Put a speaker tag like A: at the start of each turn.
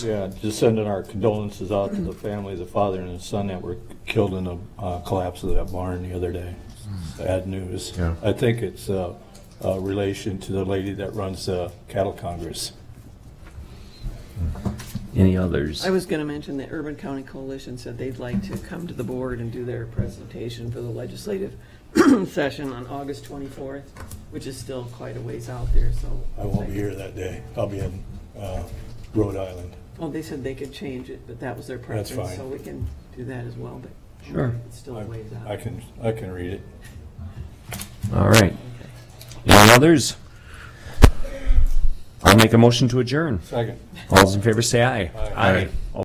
A: Yeah, just sending our condolences out to the family, the father and his son that were killed in the uh, collapse of that barn the other day. Bad news.
B: Yeah.
A: I think it's uh, a relation to the lady that runs the cattle congress.
C: Any others?
D: I was going to mention that Urban County Coalition said they'd like to come to the board and do their presentation for the legislative session on August 24th, which is still quite a ways out there, so.
A: I won't be here that day. I'll be in uh, Rhode Island.
D: Well, they said they could change it, but that was their
A: That's
D: preference.
A: fine.
D: So we can do that as well, but.
C: Sure.
D: It's still a ways
A: I
D: out.
A: can, I can read it.
C: All right. Any others? I'll make a motion to adjourn.
A: Second.
C: All those in favor say aye.
A: Aye.